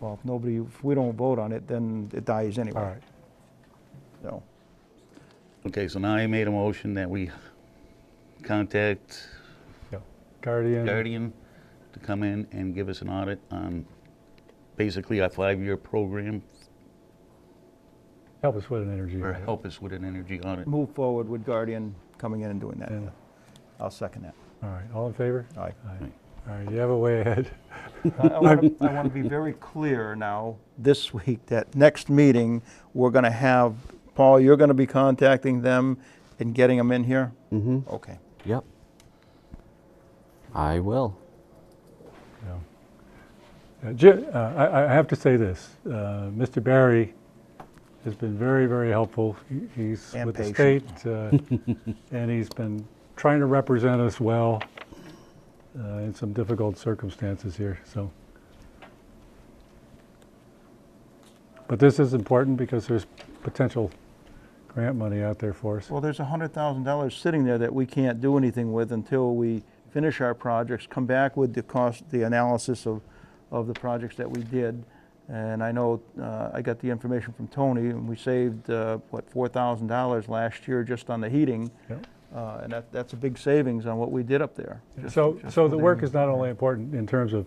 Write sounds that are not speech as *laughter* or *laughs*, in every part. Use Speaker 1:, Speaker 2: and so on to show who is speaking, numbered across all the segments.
Speaker 1: Well, if nobody, if we don't vote on it, then it dies anyway.
Speaker 2: All right.
Speaker 1: So,
Speaker 3: Okay, so now I made a motion that we contact
Speaker 2: Yeah. Guardian,
Speaker 3: Guardian to come in and give us an audit on basically our five-year program
Speaker 2: help us with an energy.
Speaker 3: or
Speaker 2: audit.
Speaker 3: help us with an energy audit.
Speaker 1: move forward with Guardian coming in and doing that.
Speaker 2: And-
Speaker 1: I'll second that.
Speaker 2: All right, all in favor?
Speaker 1: All right.
Speaker 2: Aye. All right, you have a way ahead.
Speaker 1: *laughs* I want to be very clear now, this week, that next meeting, we're going to have, Paul, you're going to be contacting them and getting them in here? Mm-hmm. Okay.
Speaker 4: Yep. I will.
Speaker 2: Yeah. Uh, Ji- uh, I I have to say this, uh, Mr. Barry has been very, very helpful. He- He's
Speaker 1: And
Speaker 2: with the state,
Speaker 1: patient.
Speaker 2: uh, *laughs* and he's been trying to represent us well uh, in some difficult circumstances here, so. But this is important because there's potential grant money out there for us.
Speaker 1: Well, there's $100,000 sitting there that we can't do anything with until we finish our projects, come back with the cost, the analysis of, of the projects that we did. And I know, uh, I got the information from Tony, and we saved, uh, what, $4,000 last year just on the heating.
Speaker 2: Yep.
Speaker 1: Uh, And that, that's a big savings on what we did up there. just-
Speaker 2: So,
Speaker 1: just
Speaker 2: so
Speaker 1: for
Speaker 2: the work is not only important in terms of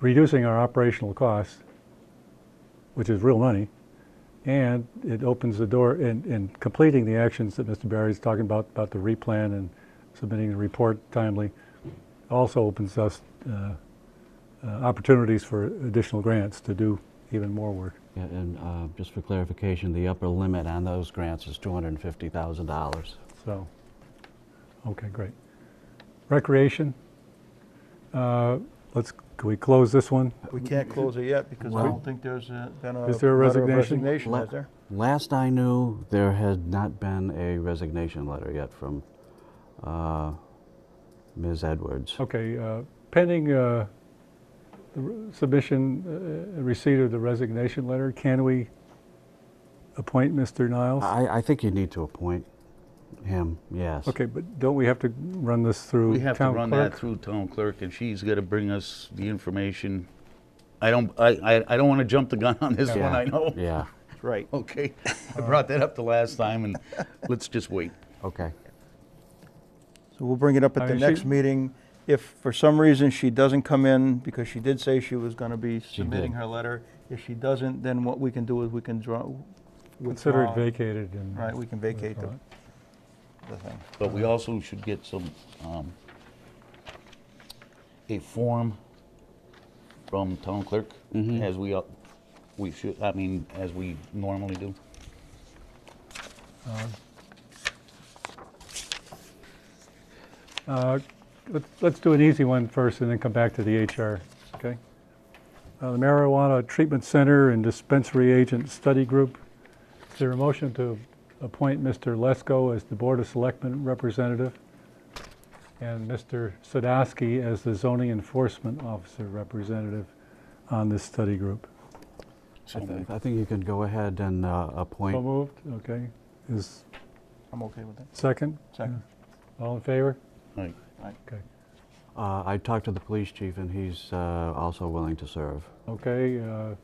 Speaker 2: reducing our operational costs, which is real money, and it opens the door in, in completing the actions that Mr. Barry's talking about, about the replan and submitting the report timely, also opens us uh, uh, opportunities for additional grants to do even more work.
Speaker 4: Yeah, and uh, just for clarification, the upper limit on those grants is $250,000.
Speaker 2: So, okay, great. Recreation, uh, let's, can we close this one?
Speaker 1: We can't close it yet because I
Speaker 4: Well-
Speaker 1: don't think there's a- been a.
Speaker 2: Is there a
Speaker 1: letter of
Speaker 2: resignation?
Speaker 1: Resignation,
Speaker 4: La-
Speaker 1: is there?
Speaker 4: Last I knew, there had not been a resignation letter yet from uh, Ms. Edwards.
Speaker 2: Okay, uh, pending uh, the re- submission, uh, receipt of the resignation letter, can we appoint Mr. Niles?
Speaker 4: I, I think you need to appoint him, yes.
Speaker 2: Okay, but don't we have to run this through
Speaker 3: We have to
Speaker 2: town
Speaker 3: run that
Speaker 2: clerk?
Speaker 3: through town clerk and she's got to bring us the information. I don't, I, I, I don't want to jump the gun on this
Speaker 4: Yeah,
Speaker 3: one, I know.
Speaker 4: Yeah,
Speaker 1: That's right.
Speaker 3: Okay, I brought that up the last time and let's just wait.
Speaker 4: okay.
Speaker 1: So we'll bring it up
Speaker 2: I
Speaker 1: at the
Speaker 2: mean, she-
Speaker 1: next meeting. If for some reason she doesn't come in, because she did say she was going to be submitting
Speaker 4: did.
Speaker 1: her letter, if she doesn't, then what we can do is we can draw.
Speaker 2: Consider it
Speaker 1: withdraw-
Speaker 2: vacated and.
Speaker 1: Right, we can vacate the,
Speaker 2: withdraw it.
Speaker 1: the thing.
Speaker 3: But we also should get some, um, a form from town clerk, as we, uh, we should, I mean, as we normally do.
Speaker 2: Uh, let's- Let's do an easy one first and then come back to the HR, okay? Uh, The Marijuana Treatment Center and Dispensary Agent Study Group. Is there a motion to appoint Mr. Lesko as the Board of Selectmen representative and Mr. Sadowski as the Zoning Enforcement Officer representative on this study group?
Speaker 4: I thi- I think you can go ahead and uh,
Speaker 2: So
Speaker 4: appoint,
Speaker 2: moved, okay. Is
Speaker 1: I'm okay with that.
Speaker 2: second?
Speaker 1: Second.
Speaker 2: All in favor?
Speaker 3: Right.
Speaker 2: Okay.
Speaker 4: uh, I talked to the police chief and he's uh, also willing to serve.
Speaker 2: Okay, uh,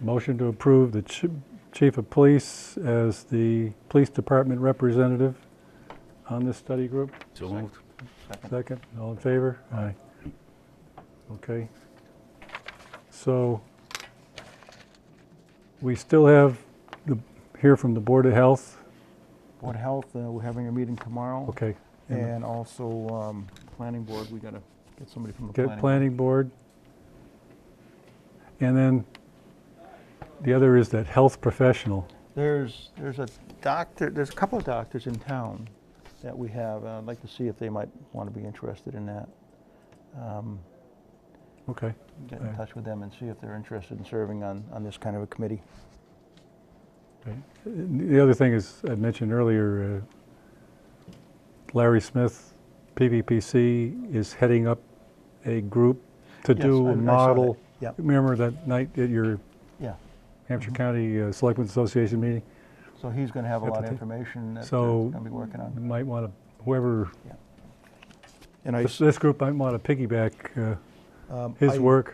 Speaker 2: motion to approve the chi- chief of police as the police department representative on this study group.
Speaker 3: So moved.
Speaker 2: Second, all in favor? Aye. Okay. So we still have the, hear from the Board of Health.
Speaker 1: Board of Health, uh, we're having a meeting tomorrow.
Speaker 2: Okay. and
Speaker 1: And also, um, Planning Board, we got to get somebody from the
Speaker 2: Get
Speaker 1: Planning. Board.
Speaker 2: planning board. And then the other is that health professional.
Speaker 1: There's, there's a doctor, there's a couple of doctors in town that we have, and I'd like to see if they might want to be interested in that. Um,
Speaker 2: Okay.
Speaker 1: get in
Speaker 2: Okay.
Speaker 1: touch with them and see if they're interested in serving on, on this kind of a committee.
Speaker 2: Right. The other thing is, I mentioned earlier, uh, Larry Smith, PVPC, is heading up a group to
Speaker 1: Yes,
Speaker 2: do
Speaker 1: I-
Speaker 2: a
Speaker 1: I saw that.
Speaker 2: model.
Speaker 1: Yep.
Speaker 2: Remember that night at your
Speaker 1: Yeah,
Speaker 2: Hampshire
Speaker 1: Mm-hmm.
Speaker 2: County uh, Selectmen's Association meeting?
Speaker 1: so he's going to have a lot of
Speaker 2: Appetite.
Speaker 1: information that he's
Speaker 2: So-
Speaker 1: going to be working
Speaker 2: You
Speaker 1: on.
Speaker 2: might want to, whoever,
Speaker 1: And I,
Speaker 2: this this group might want to piggyback uh, his work